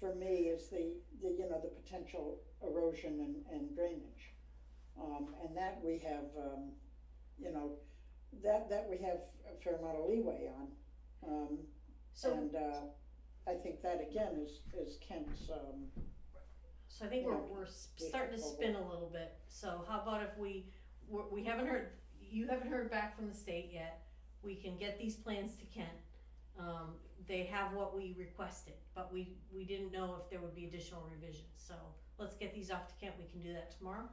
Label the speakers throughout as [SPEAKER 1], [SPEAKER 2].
[SPEAKER 1] for me is the, the, you know, the potential erosion and, and drainage. Um, and that we have, um, you know, that, that we have a fair amount of leeway on. Um,
[SPEAKER 2] So,
[SPEAKER 1] and, uh, I think that again is, is Kent's, um,
[SPEAKER 2] so I think we're,
[SPEAKER 1] yeah.
[SPEAKER 2] we're s- starting to spin a little bit. So how about if we, we're- we haven't heard, you haven't heard back from the state yet. We can get these plans to Kent. Um, they have what we requested, but we, we didn't know if there would be additional revisions. So let's get these off to Kent. We can do that tomorrow.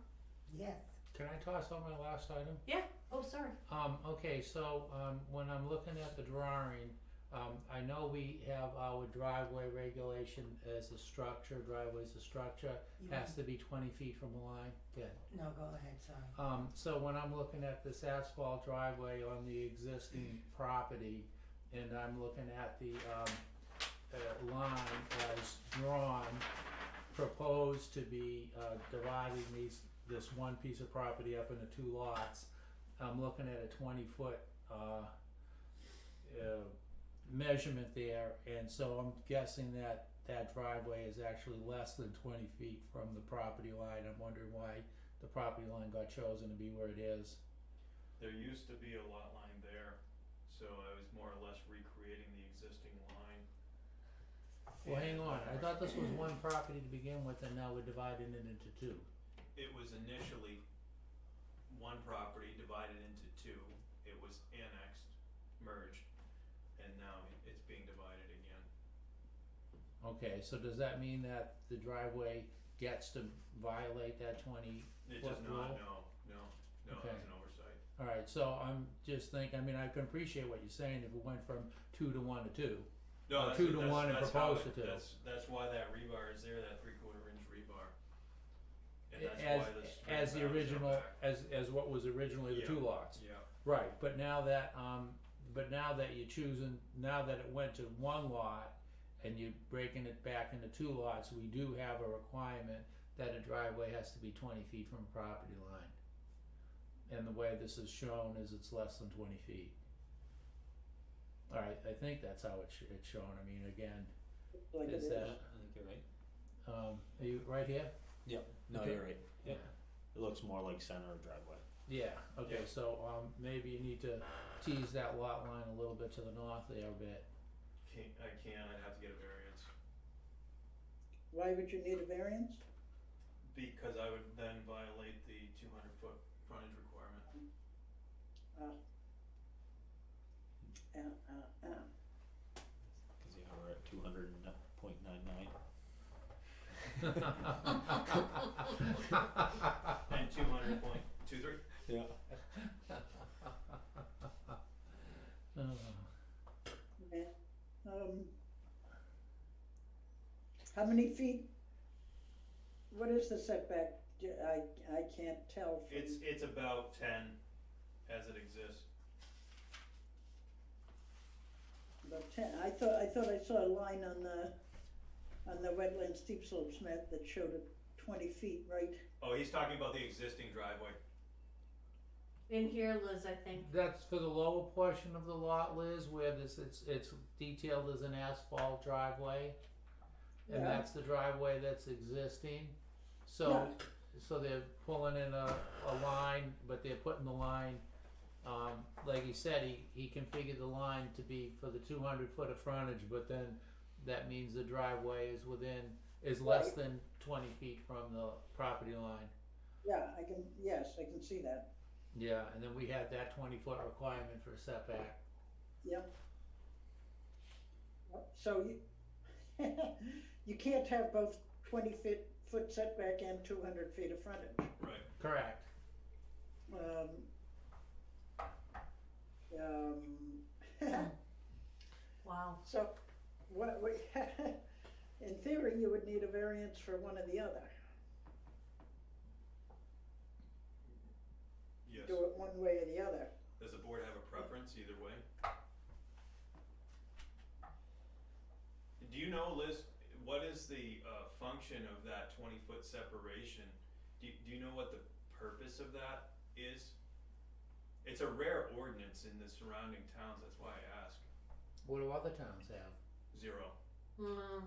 [SPEAKER 3] Yes.
[SPEAKER 4] Can I toss on my last item?
[SPEAKER 2] Yeah. Oh, sorry.
[SPEAKER 4] Um, okay, so, um, when I'm looking at the drawing, um, I know we have our driveway regulation as a structure, driveway's a structure,
[SPEAKER 3] You
[SPEAKER 4] has to be twenty feet from the line, yeah.
[SPEAKER 3] No, go ahead, sorry.
[SPEAKER 4] Um, so when I'm looking at this asphalt driveway on the existing property, and I'm looking at the, um, uh, line as drawn, proposed to be, uh, dividing these, this one piece of property up into two lots, I'm looking at a twenty-foot, uh, uh, measurement there, and so I'm guessing that that driveway is actually less than twenty feet from the property line, I'm wondering why the property line got chosen to be where it is.
[SPEAKER 5] There used to be a lot line there, so I was more or less recreating the existing line.
[SPEAKER 4] Well, hang
[SPEAKER 5] And,
[SPEAKER 4] on, I
[SPEAKER 5] uh,
[SPEAKER 4] thought this was one property to begin with and now we're dividing it into two.
[SPEAKER 5] It was initially one property divided into two, it was annexed, merged, and now it's being divided again.
[SPEAKER 4] Okay, so does that mean that the driveway gets to violate that twenty?
[SPEAKER 5] It does
[SPEAKER 4] What
[SPEAKER 5] not,
[SPEAKER 4] rule?
[SPEAKER 5] no, no, no, that was
[SPEAKER 4] Okay.
[SPEAKER 5] an oversight.
[SPEAKER 4] Alright, so I'm just thinking, I mean, I can appreciate what you're saying if it went from two to one to two. Or
[SPEAKER 5] No, that's,
[SPEAKER 4] Uh, two to
[SPEAKER 5] that's,
[SPEAKER 4] one and
[SPEAKER 5] that's how
[SPEAKER 4] proposed
[SPEAKER 5] it,
[SPEAKER 4] to two.
[SPEAKER 5] that's, that's why that rebar is there, that three quarter inch rebar. And that's
[SPEAKER 4] As,
[SPEAKER 5] why this.
[SPEAKER 4] as the
[SPEAKER 5] rebar is up
[SPEAKER 4] original,
[SPEAKER 5] back.
[SPEAKER 4] as, as what was originally the two
[SPEAKER 5] Yeah.
[SPEAKER 4] lots.
[SPEAKER 5] Yeah,
[SPEAKER 4] Right, but now that, um, but now that you're choosing, now that it went to one lot and you're breaking it back into two lots, we do have a requirement that a driveway has to be twenty feet from a property line. And the way this is shown is it's less than twenty feet. Alright, I think that's how it's, it's shown, I mean, again,
[SPEAKER 1] like it
[SPEAKER 4] is
[SPEAKER 1] is.
[SPEAKER 4] that,
[SPEAKER 6] I think you're right.
[SPEAKER 4] um, are you right here?
[SPEAKER 6] No,
[SPEAKER 4] Okay.
[SPEAKER 6] you're right.
[SPEAKER 4] Yeah.
[SPEAKER 6] It looks more like center of driveway.
[SPEAKER 4] Yeah, okay,
[SPEAKER 5] Yeah.
[SPEAKER 4] so, um, maybe you need to tease that lot line a little bit to the north there a bit.
[SPEAKER 5] can't, I can't, I'd have to get a variance.
[SPEAKER 1] Why would you need a variance?
[SPEAKER 5] Because I would then violate the two hundred foot frontage requirement.
[SPEAKER 1] Uh, uh, uh.
[SPEAKER 6] Because you are at 200.99.
[SPEAKER 5] And two hundred point two three?
[SPEAKER 6] Yeah.
[SPEAKER 4] Oh,
[SPEAKER 1] Yeah, um. How many feet? What is the setback? D- I, I can't tell from.
[SPEAKER 5] It's, it's about ten as it exists.
[SPEAKER 1] About ten, I thought, I thought I saw a line on the, on the wetland steep slopes map that showed a twenty feet, right?
[SPEAKER 5] Oh, he's talking about the existing driveway.
[SPEAKER 2] In here, Liz, I think.
[SPEAKER 4] That's for the lower portion of the lot, Liz, where this, it's, it's detailed as an asphalt driveway. And
[SPEAKER 1] Yeah.
[SPEAKER 4] that's the driveway that's existing. So, so they're pulling in a, a line, but they're putting the line, um, like he said, he, he configured the line to be for the two hundred foot of frontage, but then that means the driveway is within, is less
[SPEAKER 1] Right.
[SPEAKER 4] than twenty feet from the property line.
[SPEAKER 1] Yeah, I can, yes, I can see that,
[SPEAKER 4] Yeah, and then we had that twenty foot requirement for setback.
[SPEAKER 1] yep. Yep, So you, you can't have both twenty feet, foot setback and two hundred feet of frontage.
[SPEAKER 5] Right.
[SPEAKER 4] Correct.
[SPEAKER 1] Um, um,
[SPEAKER 2] Wow.
[SPEAKER 1] so, what, we, in theory, you would need a variance for one or the other.
[SPEAKER 5] Yes.
[SPEAKER 1] Do it one way or the other.
[SPEAKER 5] Does the board have a preference either way? Do you know, Liz, what is the, uh, function of that twenty foot separation? Do, you- do you know what the purpose of that is? It's a rare ordinance in the surrounding towns, that's why I ask.
[SPEAKER 4] What do other towns have?
[SPEAKER 5] Zero.
[SPEAKER 2] Mm,